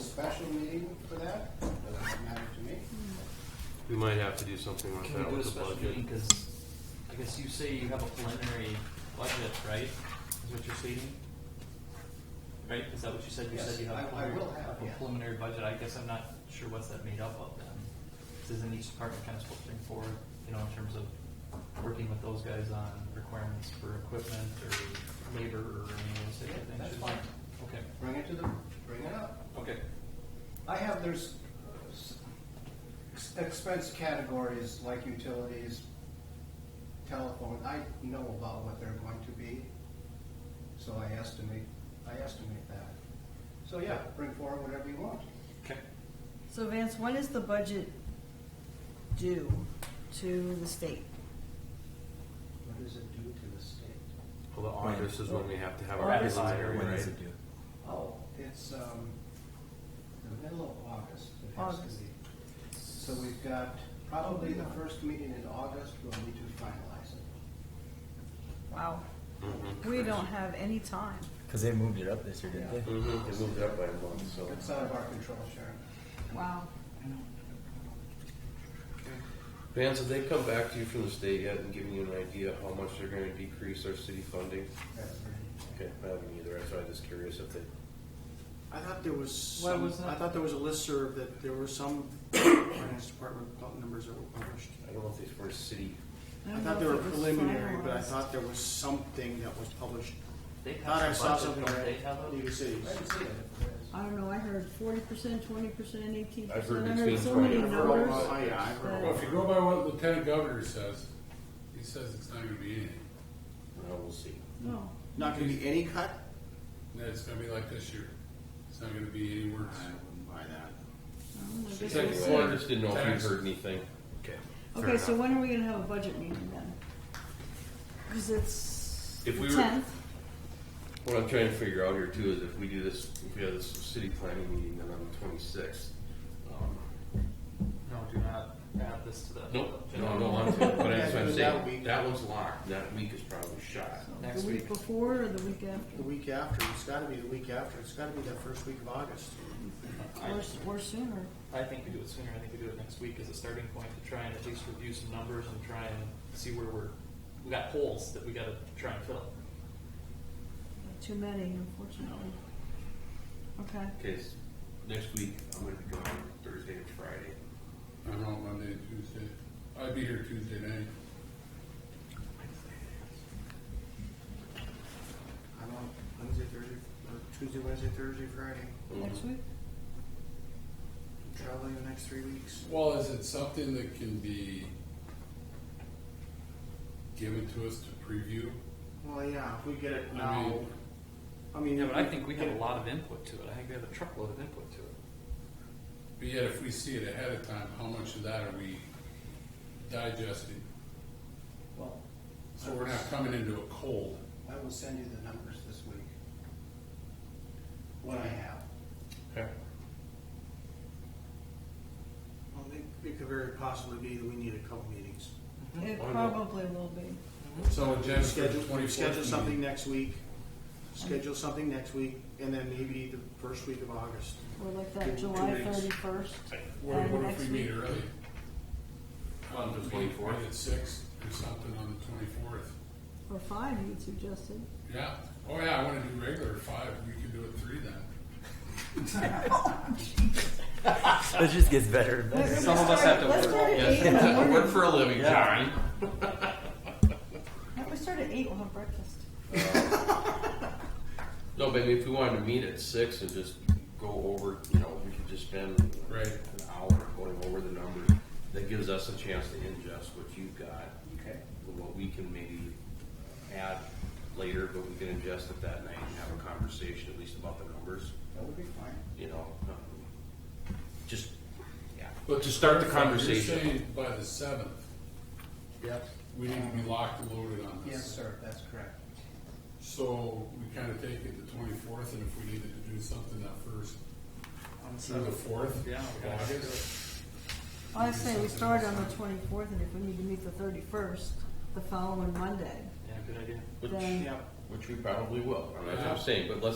special meeting for that, doesn't matter to me. We might have to do something like Can we that do a with the special meeting, budget. cause I guess you say you have a preliminary budget, right, is what you're stating? Right, is that what you said, you Yes, said you have I- a I preliminary? will have, yeah. A preliminary budget, I guess I'm not sure what's that made up of then, 'Cause isn't each department kind of supposed to bring forward, you know, in terms of working with those guys on requirements for equipment or labor or any of those type of things? That's shouldn't they? fine. Okay, Bring it to the, bring it up. okay, I have, there's uh, s- ex- expense categories like utilities, telephone, I know about what they're going to be. So I estimate, I estimate that. So yeah, bring forward whatever you want. okay. So Vance, when is the budget due to the state? What does it do to the state? Well, the August is when we have to have our August is preliminary, When is right? it due? Oh, it's, um, the middle of August. it has to August. be. So we've got probably the first meeting in August, we'll need to finalize it. Wow, Mhm. we don't have any time. Because they moved it up this year, didn't they? Mhm, It moved up by a month, so. It's out of our control, Sharon. Wow. Vance, have they come back to you from the state yet and given you an idea of how much they're gonna decrease our city funding? That's pretty. Okay, I haven't either, so I'm just curious if they, I thought there was What some, was that? I thought there was a listserv that there were some finance department numbers that were published. I don't know if these were city. don't I know thought they were if it was preliminary, but I finalized. thought there was something that was published. They I Thought I have saw some something, budget, don't they right? have a- League of Cities. I didn't see it. I don't know, I heard forty percent, twenty percent, eighteen I've heard percent, I heard between so 20 many I've heard all numbers. about- oh, yeah, I've heard all that- Well, if you go by what Lieutenant Governor says, he says it's not gonna be anything. Well, we'll see. No, Not gonna be any cut? That it's gonna be like this year. It's not gonna be any worse. I wouldn't buy that. no, I guess Second we'll see. Well, I just didn't know if Tax. you heard anything. Okay. Okay, so when are we gonna have a budget meeting then? Cause it's the If we were- tenth, What I'm trying to figure out here too is if we do this, if we have this city planning meeting then on the twenty-sixth. um, No, do not add this to the. Nope, no, I don't want to, but that's what I'm That saying, week. that one's locked, that week is probably shot. Next the week week. before or the week after, The week after, it's gotta be the week after, it's gotta be that first week of August. or, s- or sooner. I think we do it sooner. I think we do it next week as a starting point to try and at least review some numbers and try and see where we're, we got holes that we gotta try and fill. Too many, unfortunately. Okay, Cause next week, I'm gonna be gone Thursday and Friday. I don't know, Monday and Tuesday. I'd be here Tuesday night. I'm on Wednesday, Thursday, or Tuesday, Wednesday, Thursday, Friday. next week? I'm Traveling the next three weeks. Well, is it something that can be given to us to preview? Well, yeah, if we get it I now, mean- I mean. Yeah, but I think we have a lot of input to it. I think we have a truckload of input to it. But yet if we see it ahead of time, how much of that are we digesting? Well, So we're not coming into a cold. I will send you the numbers this week. What I have. Okay. Well, it, it could very possibly be that we need a couple meetings. It Why not? probably will be. So Jen's Schedule, schedule twenty-fourth something meeting. next week, schedule something next week, and then maybe the first week of August. We're like Two- that two July weeks. thirty-first. What, what if we meet early? On the Meet- meet 24th? At six or something on the twenty-fourth. Or five, you suggested. Yeah. Oh, yeah, I want to do regular five. We could do it three then. It just gets better and better. Some of us have to Let's work. start at Yes, eight in the I work morning. for a living, John. If we start at eight, we'll have breakfast. No, but if we wanted to meet at six and just go over, you know, we could just spend Right. an hour going over the numbers. That gives us a chance to ingest what you've got, Okay. and what we can maybe add later, but we can ingest it that night and have a conversation at least about the numbers, That would be fine. you know. um, Just, yeah. But to start the You're conversation. saying by the seventh, Yep. we need to be locked and loaded on this. Yes, sir, that's correct. So we kind of take it the twenty-fourth, and if we needed to do something that first, through the fourth. Yeah, we gotta do it. I say we start on the twenty-fourth, and if we need to meet the thirty-first, the following Monday, Yeah, good idea. Which, then Yeah. which we probably will, I mean, that's what I'm saying, but let's